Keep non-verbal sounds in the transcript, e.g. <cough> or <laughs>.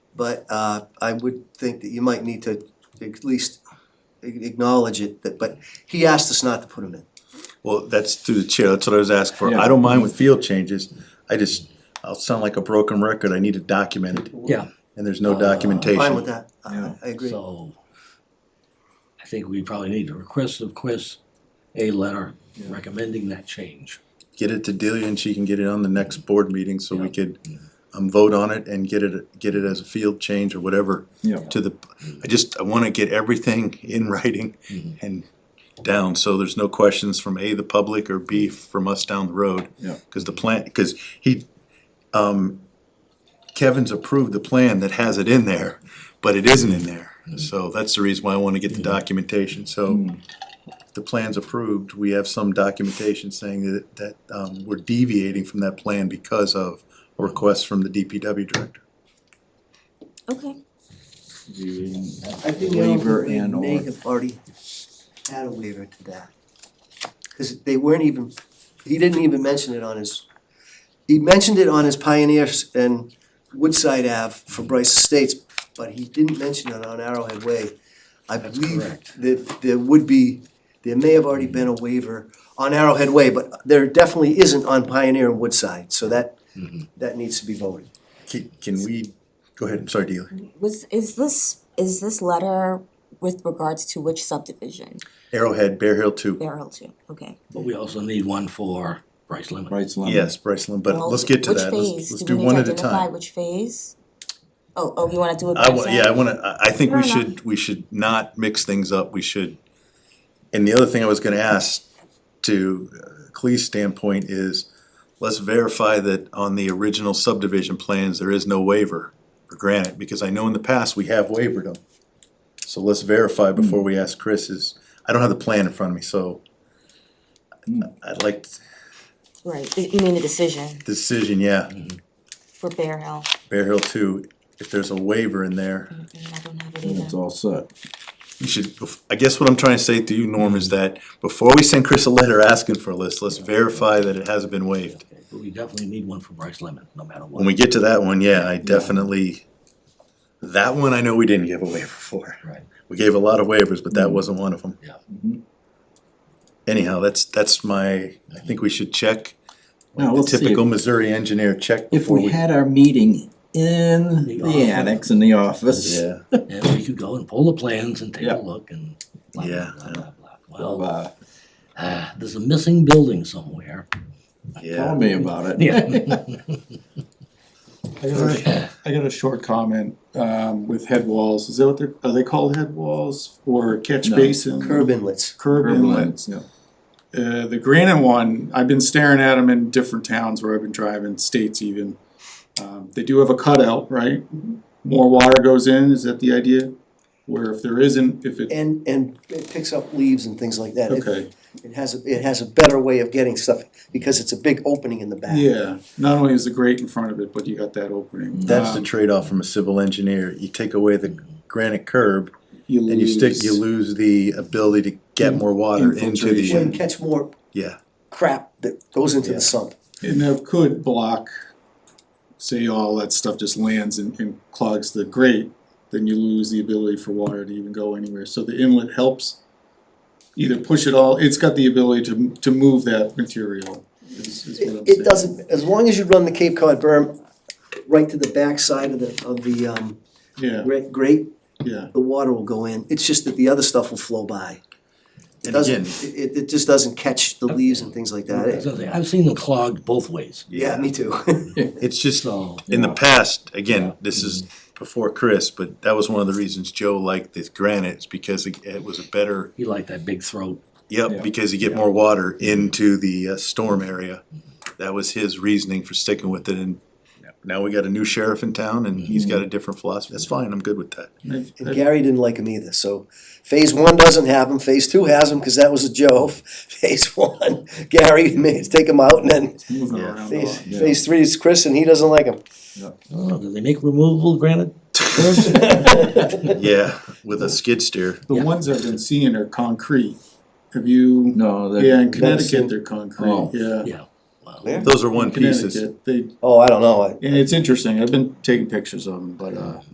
But uh I would think that you might need to at least a- acknowledge it, that, but he asked us not to put him in. Well, that's through the chair, that's what I was asking for, I Yeah. don't mind with field changes, I just, I'll sound like a broken record, I need it documented, Yeah. and there's no Fine with documentation. that, I Yeah. I agree. So I think we probably need to request of Chris a letter Yeah. recommending that change. Get it to Delia and she can get it on the next board meeting, so we Yeah. could, um, vote on it and get it, get it as a field change or whatever. Yeah. To the, I just, I wanna get everything <laughs> in writing Mhm. and down, so there's no questions from A, the public, or B, from us down the road. Yeah. Cause the plan, cause he, um, Kevin's approved the plan that has it in there, but it isn't in there. So that's the reason why I wanna get the documentation, so Mm, if the plan's approved, we have some documentation saying that, that, um, we're deviating from that plan because of a request from the DPW director. Okay. I the think you know, Waiver we and may or, have already had a waiver to that. Cause they weren't even, he didn't even mention it on his, he mentioned it on his Pioneers and Woodside Ave for Bryce Estates, but he didn't mention it on Arrowhead Way. I That's believe correct. that there would be, there may have already been a waiver on Arrowhead Way, but there definitely isn't on Pioneer and Woodside, so that, Mhm. that needs to be voted. Can, can we, go ahead, I'm sorry, Dealer, Was, is this, is this letter with regards to which subdivision? Arrowhead, Bear Hill two, Barrel two, okay. But we also need one for Bryce Lemon. Rights Lemon. yes, Bryceland, but Well, let's get to which that, let's, phase? let's we do need one to at a time. identify Which phase? Oh, oh, you wanna do it by I wa- yeah, I zone? wanna, I, I think we Fair should, we should not mix things up, we should. And the other thing I was gonna ask to uh, Clee's standpoint is, let's verify that on the original subdivision plans, there is no waiver for granite, because I know in the past we have wavered them. So let's verify Hmm. before we ask Chris is, I don't have the plan in front of me, so. I'd like Right, you you mean the decision decision, yeah, for Bear Hill, Bear Hill two, if there's a waiver in there. Mm, I don't have it It's either. all set. You should, I guess what I'm trying to say to you, Norm, is that before we send Chris a letter asking for a list, let's verify that it hasn't been waived. But we definitely need one for Bryce Lemon, no matter what. When we get to that one, yeah, I definitely, that one I know we didn't give a waiver for. Right. We gave a lot of waivers, but that wasn't one of them. Mm-hmm. Yeah. Mhm. Anyhow, that's, that's my, I think we should check. Now, The let's see, typical Missouri engineer check if before we we. had our meeting in The the office. annex in the office. Yeah, And we could go and pull the plans and take Yeah. a look and blah, Yeah, blah, blah, blah, blah. Well, Uh, ah, there's a missing building somewhere. tell yeah. me about it. <laughs> Yeah. I got a, I got a short comment, um, with head walls, is that what they're, are they called head walls or catch No. basin? Curb inlets. Curb Urban inlet. lands, yeah. Uh, the granite one, I've been staring at them in different towns where I've been driving, states even. Um, they do have a cutout, right? More water goes in, is that the idea? Where if there isn't, if it, And, and it picks up leaves and things like that. It- okay, It has, a- it has a better way of getting stuff, because it's a big opening in the back. yeah, not only is the grate in front of it, but you got that opening. That's the Um, trade-off from a civil engineer. You take away the granite curb You and you stick, lose- you lose the ability to get more water into Well, you the, Infiltration. catch more yeah. crap that goes into Yeah. the sump. And that could block, say all that stuff just lands and, and clogs the grate, then you lose the ability for water to even go anywhere. So the inlet helps either push it all, it's got the ability to, to move that material, is, is what I'm It, saying. it doesn't, as long as you run the Cape Cod berm right to the back side of the, of the, um, Yeah, gra- grate, yeah, the water will go in. It's just that the other stuff will flow by. It And doesn't, again- it, it just doesn't catch the leaves and things like that. As It- I say, I've seen them clogged both ways, Yeah, me too. <laughs> It's just, so. in the Yeah. past, again, this is before Chris, but that was one of the reasons Joe liked this granite, is because it- it was a better, You like that big throat. yep, Yeah. because you get more water into the uh, storm area. That was his reasoning for sticking with it, and now we got a new sheriff in town, and he's got a different philosophy, that's fine, I'm good with that. I've- And I've- Gary didn't like him either, so phase one doesn't have him, phase two has him, cause that was a Joe. <laughs> Phase one, <laughs> Gary made, take him out, and then it's moving Yeah. around a phase, lot. yeah. phase three is Chris, and he doesn't like him. <laughs> Oh, do they make removable granite? Yeah, with a skid steer, The Yeah. ones I've been seeing are concrete. Have you, No, that. yeah, in seen- Connecticut, they're concrete, Oh. yeah. Yeah. Well, Yeah. those are one pieces. Connecticut, they, Oh, I don't know, I, and it's interesting, I've been taking pictures of them, but, uh,